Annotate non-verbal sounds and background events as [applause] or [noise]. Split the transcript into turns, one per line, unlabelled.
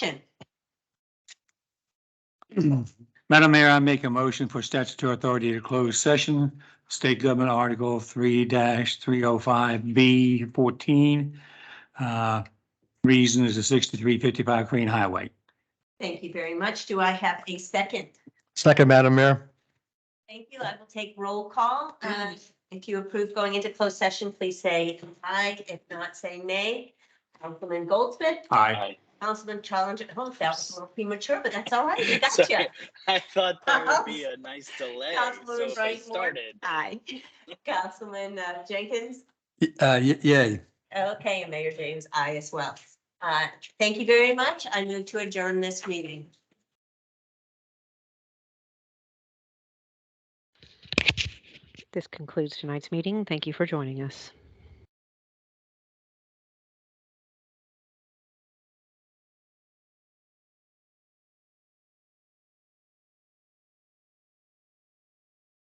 [clears throat] Madam Mayor, I make a motion for statutory authority to close session, State Government Article three three oh five B fourteen. Uh, Reason is the sixty-three fifty-five Crane Highway.
Thank you very much. Do I have a second?
Second, Madam Mayor.
Thank you. I will take roll call. Um, If you approve going into closed session, please say aye. If not, say nay. Councilman Goldsmith,
Aye.
Councilman Challenger, oh, that was a little premature, but that's all right.
[laughs]
We [laughs] Gotcha.
I thought that would be a nice delay. So
Councilwoman
if I
Wright Ward.
started.
Aye. Councilman uh, Jenkins,
Uh, y- yay.
okay, and Mayor James, aye as well. Uh, Thank you very much. I move to adjourn this meeting.
This concludes tonight's meeting. Thank you for joining us.